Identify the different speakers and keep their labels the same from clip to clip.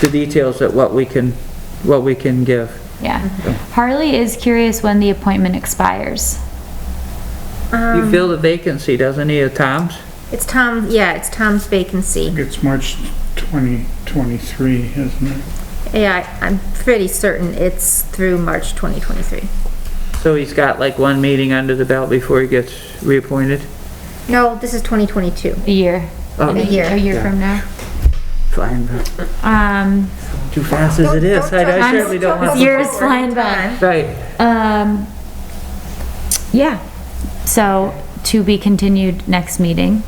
Speaker 1: the details at what we can, what we can give.
Speaker 2: yeah.
Speaker 3: Mm-hmm.
Speaker 2: Harley is curious when the appointment expires. Um,
Speaker 1: You fill the vacancy, doesn't he, at Tom's?
Speaker 3: Um, It's Tom, yeah, it's Tom's vacancy.
Speaker 4: It's March 2023, isn't it?
Speaker 3: Yeah, I- I'm pretty certain it's through March 2023.
Speaker 1: So he's got like one meeting under the belt before he gets reappointed?
Speaker 3: No, this is 2022.
Speaker 2: A year.
Speaker 1: Oh.
Speaker 3: A year.
Speaker 2: A year from now.
Speaker 1: Fine, but
Speaker 2: Um,
Speaker 1: too fast as it is, I I certainly don't want.
Speaker 2: Years flying by.
Speaker 1: Right,
Speaker 2: um, yeah. So to be continued next meeting.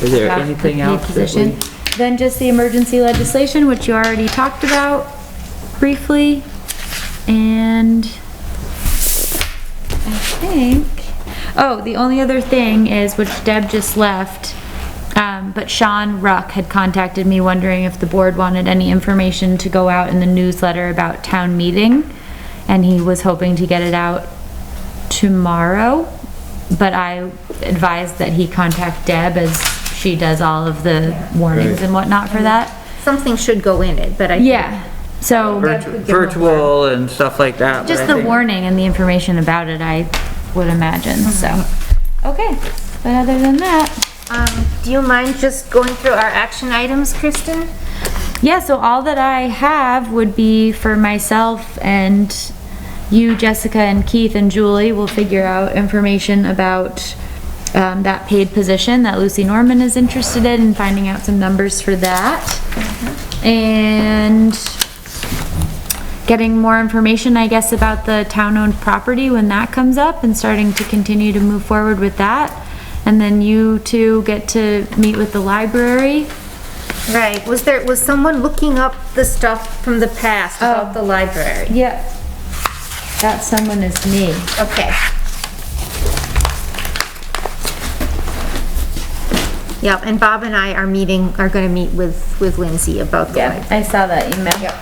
Speaker 1: is there
Speaker 2: about the
Speaker 1: anything
Speaker 2: PA
Speaker 1: else that
Speaker 2: position.
Speaker 1: we?
Speaker 2: Then just the emergency legislation, which you already talked about briefly, and I think, oh, the only other thing is, which Deb just left, um, but Sean Ruck had contacted me wondering if the board wanted any information to go out in the newsletter about town meeting, and he was hoping to get it out tomorrow, but I advised that he contact Deb as she does all of the warnings and whatnot for that.
Speaker 3: Something should go in it, but I. think-
Speaker 2: Yeah, so
Speaker 1: Virtu- Virtual and stuff like that. but I
Speaker 2: just the
Speaker 1: think-
Speaker 2: warning and the information about it, I would imagine, so.
Speaker 1: Mm-hmm.
Speaker 2: Okay, but other than that,
Speaker 3: Um, do you mind just going through our action items, Kristen?
Speaker 2: yeah, so all that I have would be for myself and you, Jessica and Keith and Julie will figure out information about um, that paid position that Lucy Norman is interested in and finding out some numbers for that. And getting more information, I guess, about the town-owned property when that comes up and starting to continue to move forward with that. And then you two get to meet with the library.
Speaker 3: Right, was there, was someone looking up the stuff from the past
Speaker 2: Oh.
Speaker 3: about the library?
Speaker 2: Yep. That someone is me.
Speaker 3: Okay. Yep, and Bob and I are meeting, are gonna meet with, with Lindsay about the
Speaker 2: Yeah,
Speaker 3: library.
Speaker 2: I saw that email.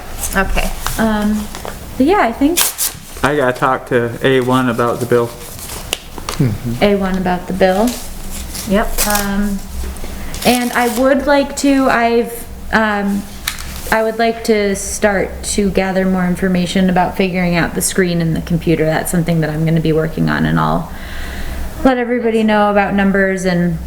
Speaker 3: Okay.
Speaker 2: Um, but yeah, I think
Speaker 1: I gotta talk to A1 about the bill.
Speaker 2: A1 about the bill.
Speaker 3: Yep.
Speaker 2: Um, and I would like to, I've, um, I would like to start to gather more information about figuring out the screen and the computer. That's something that I'm gonna be working on and I'll let everybody know about numbers and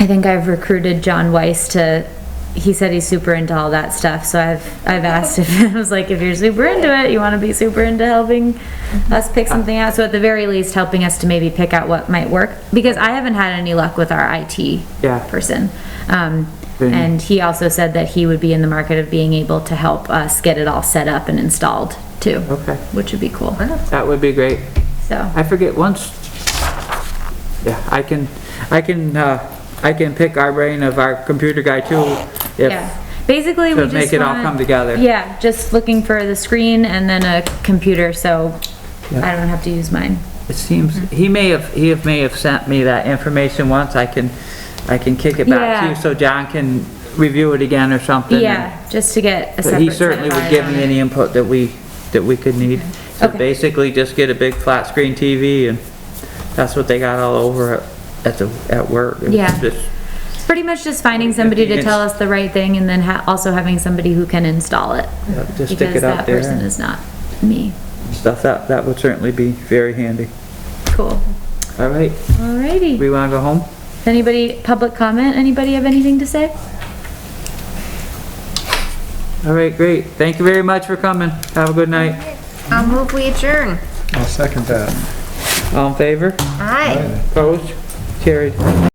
Speaker 2: I think I've recruited John Weiss to, he said he's super into all that stuff, so I've, I've asked if, I was like, if you're super into it, you wanna be super into helping us pick something out, so at the very least, helping us to maybe pick out what might work, because I haven't had any luck with our IT
Speaker 1: Yeah.
Speaker 2: person. Um,
Speaker 1: Then-
Speaker 2: and he also said that he would be in the market of being able to help us get it all set up and installed too.
Speaker 1: Okay.
Speaker 2: Which would be cool,
Speaker 1: That would be great.
Speaker 2: so.
Speaker 1: I forget once. Yeah, I can, I can, uh, I can pick our brain of our computer guy too.
Speaker 2: Yeah,
Speaker 1: If,
Speaker 2: basically we
Speaker 1: To
Speaker 2: just
Speaker 1: make it all
Speaker 2: want-
Speaker 1: come together.
Speaker 2: Yeah, just looking for the screen and then a computer, so
Speaker 1: Yeah.
Speaker 2: I don't have to use mine.
Speaker 1: it seems, he may have, he have- may have sent me that information once. I can, I can kick it back to you
Speaker 2: Yeah.
Speaker 1: so John can review it again or something. and-
Speaker 2: Yeah, just to get a
Speaker 1: But
Speaker 2: separate.
Speaker 1: he certainly
Speaker 2: set of
Speaker 1: would give
Speaker 2: eyes
Speaker 1: me
Speaker 2: on it.
Speaker 1: any input that we, that we could need. So
Speaker 2: Okay.
Speaker 1: basically, just get a big flat screen TV and that's what they got all over at, at the, at work. It was
Speaker 2: Yeah.
Speaker 1: just-
Speaker 2: Pretty much just finding somebody to tell us the right thing and then ha- also having somebody who can install it.
Speaker 1: Yeah, just stick it up
Speaker 2: Because that
Speaker 1: there
Speaker 2: person
Speaker 1: and-
Speaker 2: is not me.
Speaker 1: Stuff, that, that would certainly be very handy.
Speaker 2: Cool.
Speaker 1: All right,
Speaker 2: Alrighty.
Speaker 1: we wanna go home?
Speaker 2: Anybody, public comment? Anybody have anything to say?
Speaker 1: All right, great. Thank you very much for coming. Have a good night.
Speaker 3: I'll move, we adjourn.
Speaker 5: I'll second that.
Speaker 1: All in favor?
Speaker 3: Aye.
Speaker 1: Opposed? Carried.